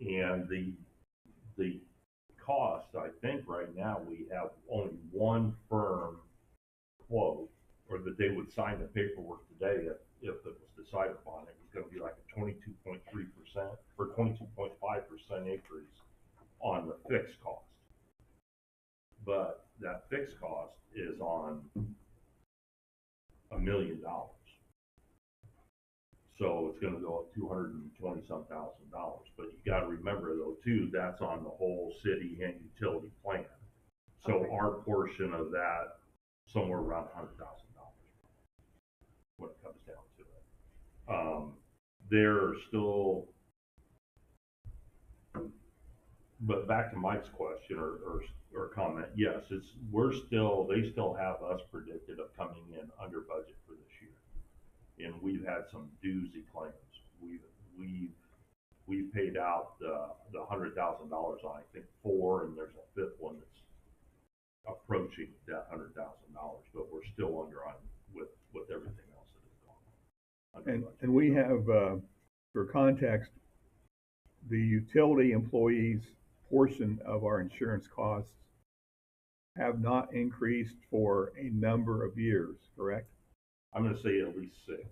And the, the cost, I think right now, we have only one firm quote, or that they would sign the paperwork today if, if it was decided upon. It was gonna be like a twenty-two point three percent, or twenty-two point five percent increase on the fixed cost. But that fixed cost is on a million dollars. So it's gonna go up two hundred and twenty-some thousand dollars, but you gotta remember though too, that's on the whole city and utility plan. So Okay. our portion of that, somewhere around a hundred thousand dollars. When it comes down to it. Um, there are still. But back to Mike's question or, or, or comment, yes, it's, we're still, they still have us predicted of coming in under budget for this year and we've had some doozy claims. We've, we've, we've paid out the, the hundred thousand dollars on, I think, four, and there's a fifth one that's approaching that hundred thousand dollars, but we're still under on with, with everything else that is going on. And, and we have, uh, for context, the utility employees portion of our insurance costs have not increased for a number of years, correct? I'm gonna say at least six,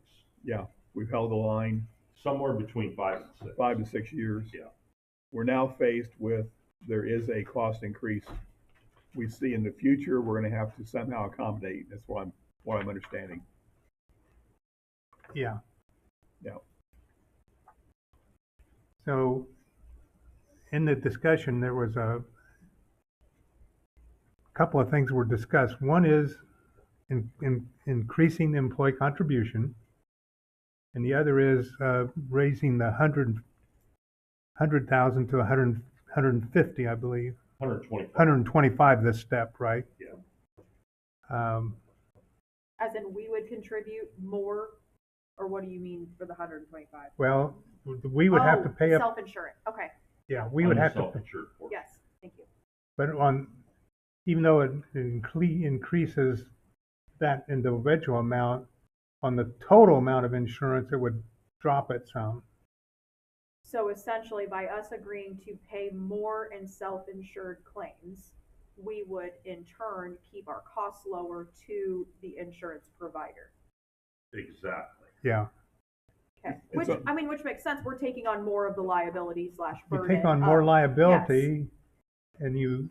Yeah, we've held the line somewhere between five and six. five to six years. Yeah. We're now faced with, there is a cost increase. We see in the future, we're gonna have to somehow accommodate, that's what I'm, what I'm understanding. Yeah. Yeah. So in the discussion, there was a couple of things were discussed. One is in, in increasing the employee contribution. And the other is uh, raising the hundred, hundred thousand to a hundred, hundred and fifty, I believe, Hundred twenty-five, hundred and twenty-five this step, right? Yeah. Um, As in, we would contribute more, or what do you mean for the hundred and twenty-five? well, we would have to Oh, pay up, Self-insurance, okay, yeah, we would have to. Self-insured for it. yes, thank you. But on, even though it incre- increases that individual amount, on the total amount of insurance, it would drop it some. So essentially, by us agreeing to pay more in self-insured claims, we would in turn keep our costs lower to the insurance provider. Exactly. Yeah, Okay, It's which, a- I mean, which makes sense, we're taking on more of the liability slash you burden. take on more of- liability, and you,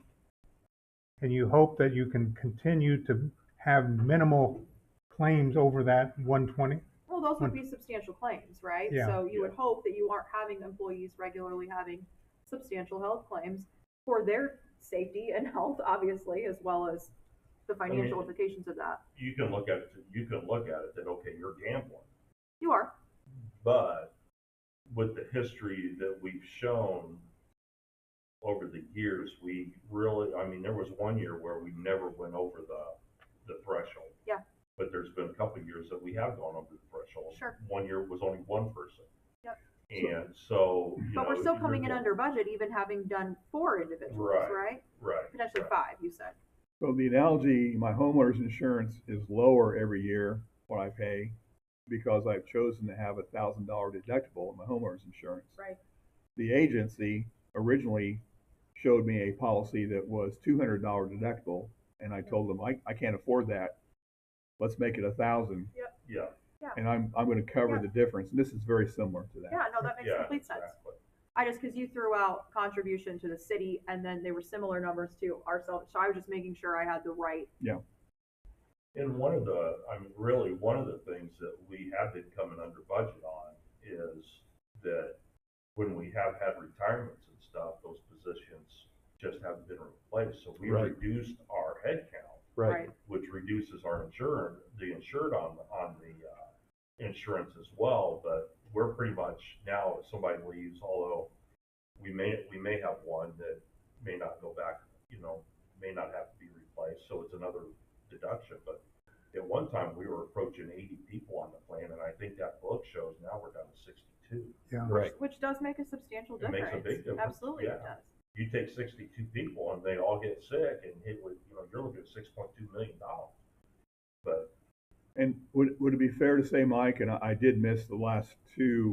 and you hope that you can continue to have minimal claims over that one twenty. Well, those would be substantial claims, right? Yeah. So you would hope that you aren't having employees regularly having substantial health claims for their safety and health, obviously, as well as the financial mean- implications of that. You can look at it, you can look at it that, okay, you're gambling. You are, But with the history that we've shown over the years, we really, I mean, there was one year where we never went over the, the threshold. Yeah. But there's been a couple of years that we have gone over the threshold. Sure. One year was only one person. Yep. And so, you but know, we're still you're coming in go- under budget, even having done four individuals, Right. right? Right. Potentially right. five, you said. So the analogy, my homeowner's insurance is lower every year, what I pay, because I've chosen to have a thousand dollar deductible in my homeowner's insurance. Right. The agency originally showed me a policy that was two hundred dollar deductible, and I told them, I, I can't afford that. Let's make it a thousand, Yeah, and I'm, I'm gonna cover Yeah. the difference, and this is very similar to that. Yeah, no, that makes yeah, complete sense. exactly. I just, because you threw out contribution to the city and then they were similar numbers to ourselves, so I was just making sure I had the right, And one of the, I mean, really, one of the things that we have been coming under budget on is that when we have had retirements and stuff, those positions just haven't been replaced. So we Right. reduced our headcount, Right, right? which reduces our insured, the insured on, on the, uh, insurance as well. But we're pretty much now, if somebody leaves, although we may, we may have one that may not go back, you know, may not have to be replaced, so it's another deduction, but at one time, we were approaching eighty people on the plan, and I think that book shows now we're down to sixty-two. Yeah, right. Which does make a substantial It makes difference. a big difference, Absolutely it yeah. does. You take sixty-two people and they all get sick, and it would, you know, you're looking at six point two million dollars. But And would, would it be fair to say, Mike, and I, I did miss the last two